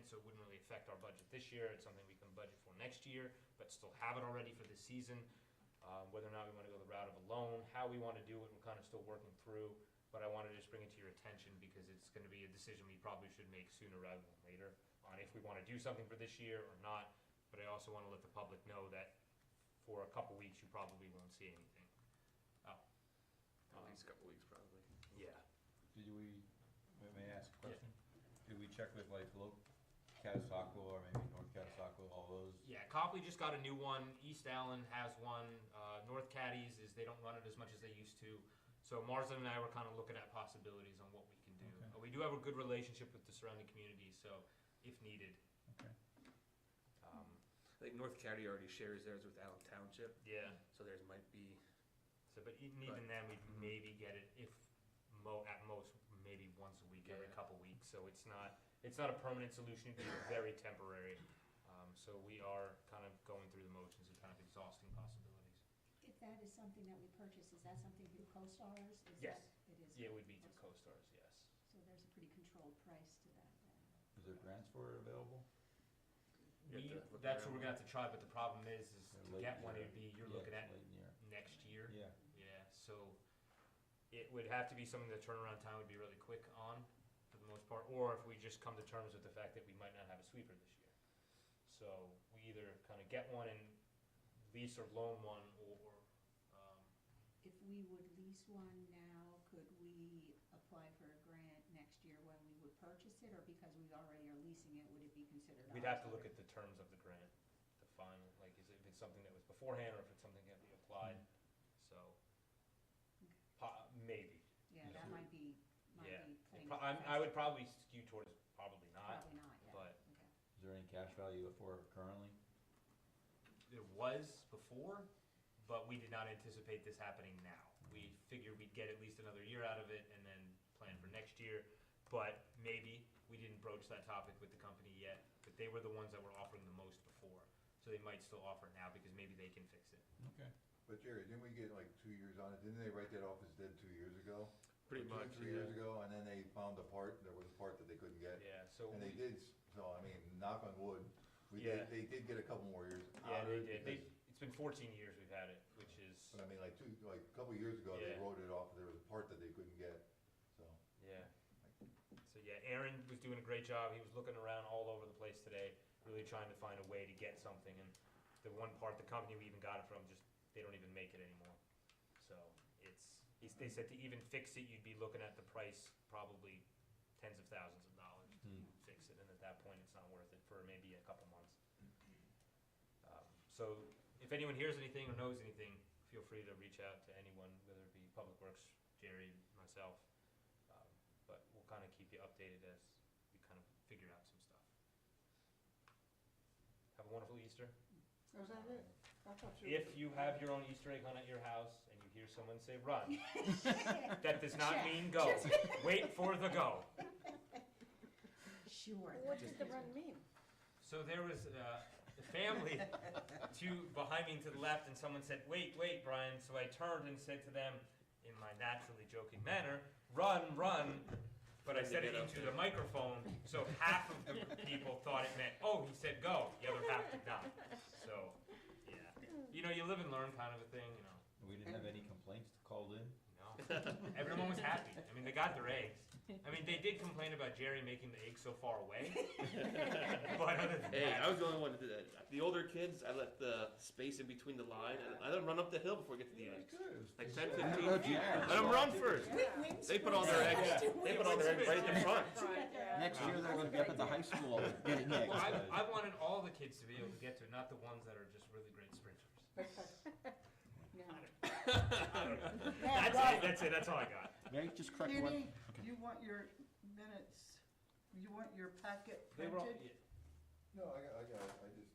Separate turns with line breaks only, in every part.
so it wouldn't really affect our budget this year. It's something we can budget for next year, but still have it already for this season. Um, whether or not we wanna go the route of a loan, how we wanna do it, we're kinda still working through. But I wanna just bring it to your attention because it's gonna be a decision we probably should make sooner rather than later on if we wanna do something for this year or not. But I also wanna let the public know that for a couple weeks, you probably won't see anything. Oh.
At least a couple weeks, probably.
Yeah.
Did we, may- may I ask a question? Did we check with like local Catasauqua or maybe North Catasauqua, all those?
Yeah, Copley just got a new one. East Allen has one. Uh, North Caddies is they don't run it as much as they used to. So Marsden and I were kind of looking at possibilities on what we can do.
Okay.
Uh, We do have a good relationship with the surrounding communities, so if needed,
Okay.
um,
I think North County already shares theirs with Allen Township,
yeah.
so theirs might be,
So, but even even
Right.
then, we'd
Mm-hmm.
maybe get it if mo at most maybe once a week, every
Yeah.
couple weeks. So it's not it's not a permanent solution. It'd be very temporary. Um, so we are kind of going through the motions and kind of exhausting possibilities.
If that is something that we purchase, is that something through CoStarz? Is that-
Yes.
It is?
Yeah, it would be to co-stars, yes.
So there's a pretty controlled price to that. then.
Is there grants for it available?
You have
We-
to look
that's what
around.
we're gonna have to try, but the problem is, is
Yeah,
to
late
get one,
year.
it'd be, you're
Yeah,
looking at
Late in the year.
next year.
Yeah,
Yeah, so it would have to be something the turnaround time would be really quick on, for the most part, or if we just come to terms with the fact that we might not have a sweeper this year. So we either kinda get one and lease or loan one, or, um,
If we would lease one now, could we apply for a grant next year when we would purchase it? Or because we already are leasing it, would it be considered ours?
We'd have to look at the terms of the grant, the final, like, is it, if it's something that was beforehand, or if it's something that we applied, so.
Okay.
Po- maybe,
Yeah, that might be,
yeah.
might be
It
playing.
pro- I'm- I would probably skew towards probably not.
Probably not, yeah.
but-
Okay.
is there any cash value for it currently?
There was before, but we did not anticipate this happening now. We figured we'd get at least another year out of it and then plan for next year. But maybe, we didn't broach that topic with the company yet, but they were the ones that were offering the most before. So they might still offer it now because maybe they can fix it.
Okay.
But Jerry, didn't we get like two years on it? Didn't they write that off as dead two years ago?
Pretty
Or two,
much,
Three years
yeah.
ago, and then they found a part, there was a part that they couldn't get.
Yeah, so.
And they
we-
did, s- so I mean, knock on wood, we
Yeah.
did, they did get a couple more years
Yeah,
out
they
of
did.
it.
They,
because-
it's been 14 years we've had it, which is,
But I mean, like two, like a couple years ago, they
Yeah.
wrote it off, there was a part that they couldn't get, so.
yeah. So yeah, Aaron was doing a great job. He was looking around all over the place today, really trying to find a way to get something. And the one part, the company we even got it from, just they don't even make it anymore. So it's, it's they said to even fix it, you'd be looking at the price probably tens of thousands of dollars to
Hmm.
fix it. And at that point, it's not worth it for maybe a couple months. Um, So if anyone hears anything or knows anything, feel free to reach out to anyone, whether it be Public Works, Jerry, myself. Um, But we'll kind of keep you updated as we kind of figure out some stuff. Have a wonderful Easter.
Was that it? I thought you.
If you have your own Easter egg hunt at your house and you hear someone say run, that does not mean go. Wait for the go.
Sure.
What did the run mean?
So there was uh, a family to behind me and to the left, and someone said, "Wait, wait, Brian." So I turned and said to them, in my naturally joking manner, "Run, run!" But I said it into the microphone, so half of the people thought it meant, "Oh, he said go." The other half did not. So, yeah, you know, you live and learn, kind of a thing, you know.
We didn't have any complaints called in?
No. Everyone was happy. I mean, they got their eggs. I mean, they did complain about Jerry making the eggs so far away. but other than
Hey,
that,
I was the only one that did that. The older kids, I let the space in between the line, and I let them run up the hill before we get to the eggs. Like 10, 15. Let them run first. They put all their eggs. They put all their eggs right in the front.
Next year, they're gonna be up at the high school getting
Well, I, I wanted all the kids to be able to get to it, not the ones that are just really great sprinters.
No.
That's it. That's it. That's all I got.
May I just correct
Kenny, you want your minutes, you want your packet
They were all,
printed?
yeah,
No, I got, I got, it. I just,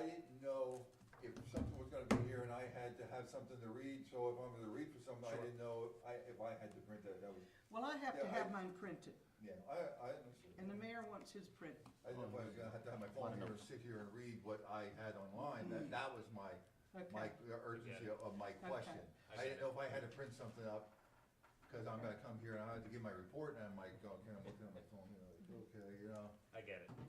I didn't know if something was gonna be here and I had to have something to read, so if I'm gonna read for something, I didn't know if I, if I had to print that, that was,
Well, I have to
Yeah, I-
have mine printed,
yeah, I, I understood.
and the mayor wants his printed.
I didn't know if I was gonna have to have my phone here and sit here and read what I had online, that, that was my, my
Mm-hmm. Okay.
urgency of of my question. I didn't know if I had to print something up, cause I'm gonna come here and I had to give my report, and I might go, okay, I'm looking at my phone, you know, like, okay, you know.
I get it.